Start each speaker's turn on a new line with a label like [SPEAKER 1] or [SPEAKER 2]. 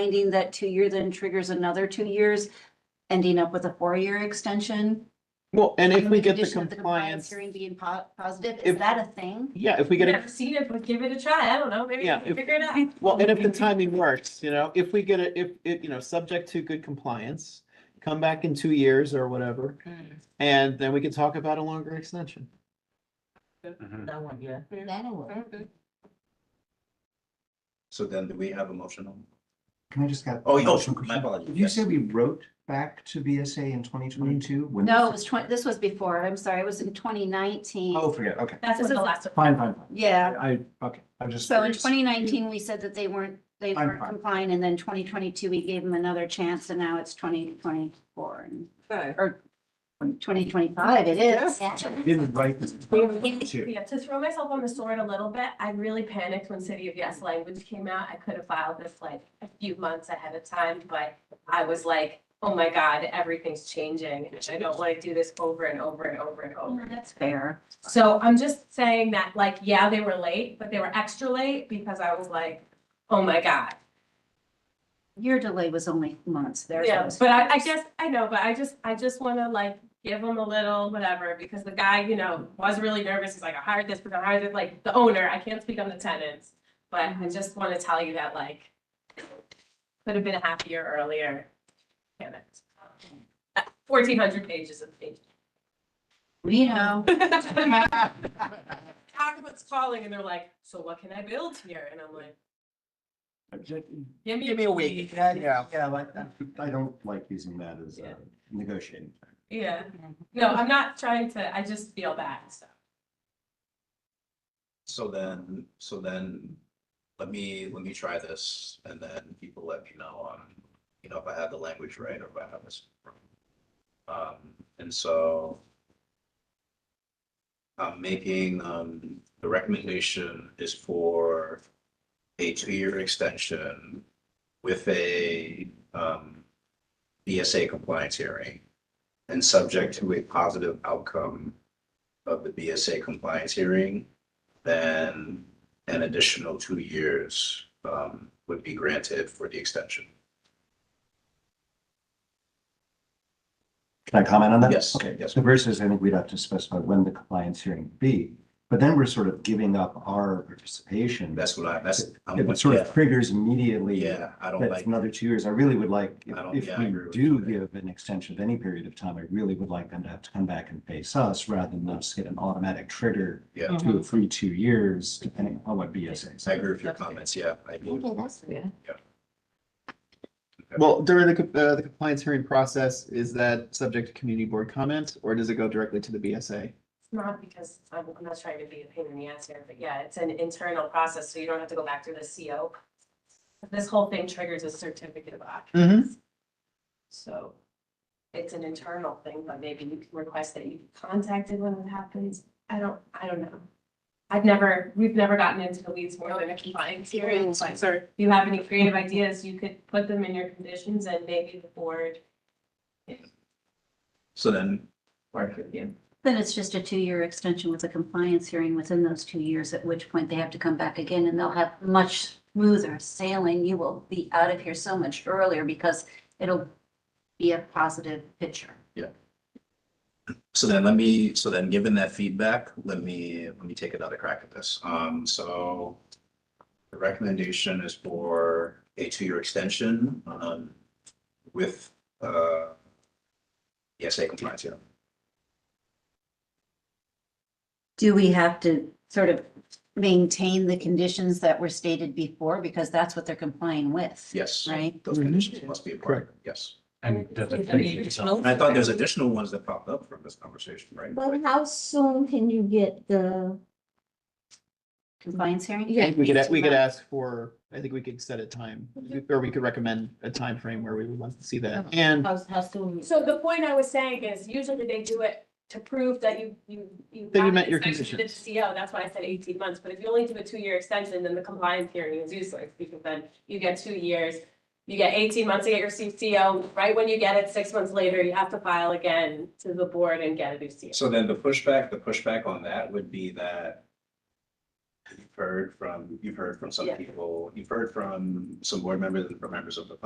[SPEAKER 1] finding that two year then triggers another two years, ending up with a four-year extension.
[SPEAKER 2] Well, and if we get the
[SPEAKER 1] Condition of
[SPEAKER 2] compliance,
[SPEAKER 1] Hearing being po- positive, is
[SPEAKER 2] If-
[SPEAKER 1] that a thing?
[SPEAKER 2] yeah, if we get
[SPEAKER 3] Never
[SPEAKER 2] it,
[SPEAKER 3] seen it, but give it a try. I don't know, maybe we
[SPEAKER 2] Yeah,
[SPEAKER 3] can
[SPEAKER 2] if-
[SPEAKER 3] figure it out.
[SPEAKER 2] well, and if the timing works, you know, if we get it, if, it, you know, subject to good compliance, come back in two years or whatever, and then we can talk about a longer extension.
[SPEAKER 3] That one, yeah.
[SPEAKER 4] Mm,
[SPEAKER 1] That'll work.
[SPEAKER 5] So then do we have a motion on?
[SPEAKER 6] Can I just get?
[SPEAKER 5] Oh, yeah,
[SPEAKER 6] oh,
[SPEAKER 5] sure, my apologies,
[SPEAKER 6] Did you
[SPEAKER 5] yes.
[SPEAKER 6] say we wrote back to VSA in twenty twenty-two?
[SPEAKER 1] No, it was twenty, this was before, I'm sorry, it was in twenty nineteen.
[SPEAKER 6] Oh, forget, it, okay,
[SPEAKER 3] That's
[SPEAKER 1] This
[SPEAKER 3] what the
[SPEAKER 1] is-
[SPEAKER 3] last one.
[SPEAKER 6] fine, fine, fine.
[SPEAKER 1] Yeah,
[SPEAKER 6] I, okay, I'm just.
[SPEAKER 1] so in
[SPEAKER 6] curious.
[SPEAKER 1] twenty nineteen, we said that they weren't, they
[SPEAKER 6] I'm
[SPEAKER 1] weren't
[SPEAKER 6] fine.
[SPEAKER 1] complying, and then twenty twenty-two, we gave them another chance, and now it's twenty twenty-four. Or twenty twenty-five, it is.
[SPEAKER 6] I Didn't write this. Two.
[SPEAKER 3] Yeah, to throw myself on the sword a little bit, I really panicked when City of Yes language came out. I could have filed this like a few months ahead of time, but I was like, oh my God, everything's changing. and I don't want to do this over and over and over and over.
[SPEAKER 1] That's fair.
[SPEAKER 3] So I'm just saying that, like, yeah, they were late, but they were extra late because I was like, oh my God.
[SPEAKER 1] Your delay was only months, theirs
[SPEAKER 3] Yeah,
[SPEAKER 1] was.
[SPEAKER 3] but I, I guess, I know, but I just, I just wanna like give him a little whatever, because the guy, you know, was really nervous, he's like, I hired this, person, I hired it, like, the owner, I can't speak on the tenants. But I just wanna tell you that like, could have been happier earlier, damn it. Fourteen hundred pages of page.
[SPEAKER 1] You know,
[SPEAKER 3] Occupants calling and they're like, so what can I build here? And I'm like, give me.
[SPEAKER 2] Give me a week.
[SPEAKER 6] Yeah, yeah, yeah, like, that. I don't like using that as a negotiating.
[SPEAKER 3] Yeah, no, I'm not trying to, I just feel bad, so.
[SPEAKER 5] So then, so then, let me, let me try this and then people let me know on, you know, if I have the language right or if I have this. wrong. Um, and so. I'm making, um, the recommendation is for a two-year extension with a, um, BSA compliance hearing and subject to a positive outcome of the BSA compliance hearing then an additional two years um, would be granted for the extension.
[SPEAKER 6] Can I comment on that?
[SPEAKER 5] Yes,
[SPEAKER 6] Okay,
[SPEAKER 5] yes.
[SPEAKER 6] so versus, I think we'd have to specify when the compliance hearing would be, but then we're sort of giving up our participation.
[SPEAKER 5] That's what I, that's, I'm,
[SPEAKER 6] If It sort of
[SPEAKER 5] yeah,
[SPEAKER 6] triggers immediately.
[SPEAKER 5] yeah, I don't
[SPEAKER 6] That's
[SPEAKER 5] like,
[SPEAKER 6] another two years. I really would like,
[SPEAKER 5] I don't-
[SPEAKER 6] if
[SPEAKER 5] yeah,
[SPEAKER 6] if
[SPEAKER 5] I
[SPEAKER 6] we
[SPEAKER 5] agree with you
[SPEAKER 6] do
[SPEAKER 5] there.
[SPEAKER 6] give an extension of any period of time, I really would like them to have to come back and face us rather than us get an automatic trigger
[SPEAKER 5] yeah,
[SPEAKER 6] to a free two years, depending on what BSA
[SPEAKER 5] I
[SPEAKER 6] says.
[SPEAKER 5] agree with your comments, yeah. I do.
[SPEAKER 2] Well, during the, co- uh, the compliance hearing process, is that subject to community board comment, or does it go directly to the BSA?
[SPEAKER 3] It's not because I'm, I'm not trying to be a pain in the ass here, but yeah, it's an internal process, so you don't have to go back through the CO. This whole thing triggers a certificate of
[SPEAKER 2] Mm-hmm.
[SPEAKER 3] occupancy. So it's an internal thing, but maybe you can request that you be contacted when it happens. I don't, I don't know. I've never, we've never gotten into the weeds more than a compliance hearing. So if you have any creative ideas, you could put them in your conditions and maybe the board
[SPEAKER 5] So then,
[SPEAKER 3] work with you.
[SPEAKER 1] then it's just a two-year extension with a compliance hearing within those two years, at which point they have to come back again and they'll have much smoother sailing. You will be out of here so much earlier because it'll be a positive picture.
[SPEAKER 5] so then let me, so then given that feedback, let me, let me take another crack at this. Um, so the recommendation is for a two-year extension um, with uh, ESA compliance, yeah.
[SPEAKER 1] Do we have to sort of maintain the conditions that were stated before? Because that's what they're complying with,
[SPEAKER 5] Yes,
[SPEAKER 1] right?
[SPEAKER 5] those
[SPEAKER 2] Mhm.
[SPEAKER 5] conditions must be a part of it, yes.
[SPEAKER 7] And does it take itself?
[SPEAKER 5] And I thought there's additional ones that popped up from this conversation, right?
[SPEAKER 4] But how soon can you get the,
[SPEAKER 1] Compliance hearing?
[SPEAKER 4] Yeah.
[SPEAKER 2] We could, we could ask for, I think we could set a time, or we could recommend a time frame where we would want to see that, and
[SPEAKER 4] how, how
[SPEAKER 2] Mm-hmm.
[SPEAKER 4] soon?
[SPEAKER 3] So the point I was saying is usually they do it to prove that you, you, you.
[SPEAKER 2] That you
[SPEAKER 3] have
[SPEAKER 2] met your
[SPEAKER 3] inspection to the CO, that's why I said eighteen months, but if you only do a two-year extension, then the compliance hearing is useless, because then you get two years. You get eighteen months to get your CCO, right when you get it, six months later, you have to file again to the board and get a new CO.
[SPEAKER 5] So then the pushback, the pushback on that would be that You've heard from, you've heard from some
[SPEAKER 3] Yeah.
[SPEAKER 5] people, you've heard from some board members and from members of the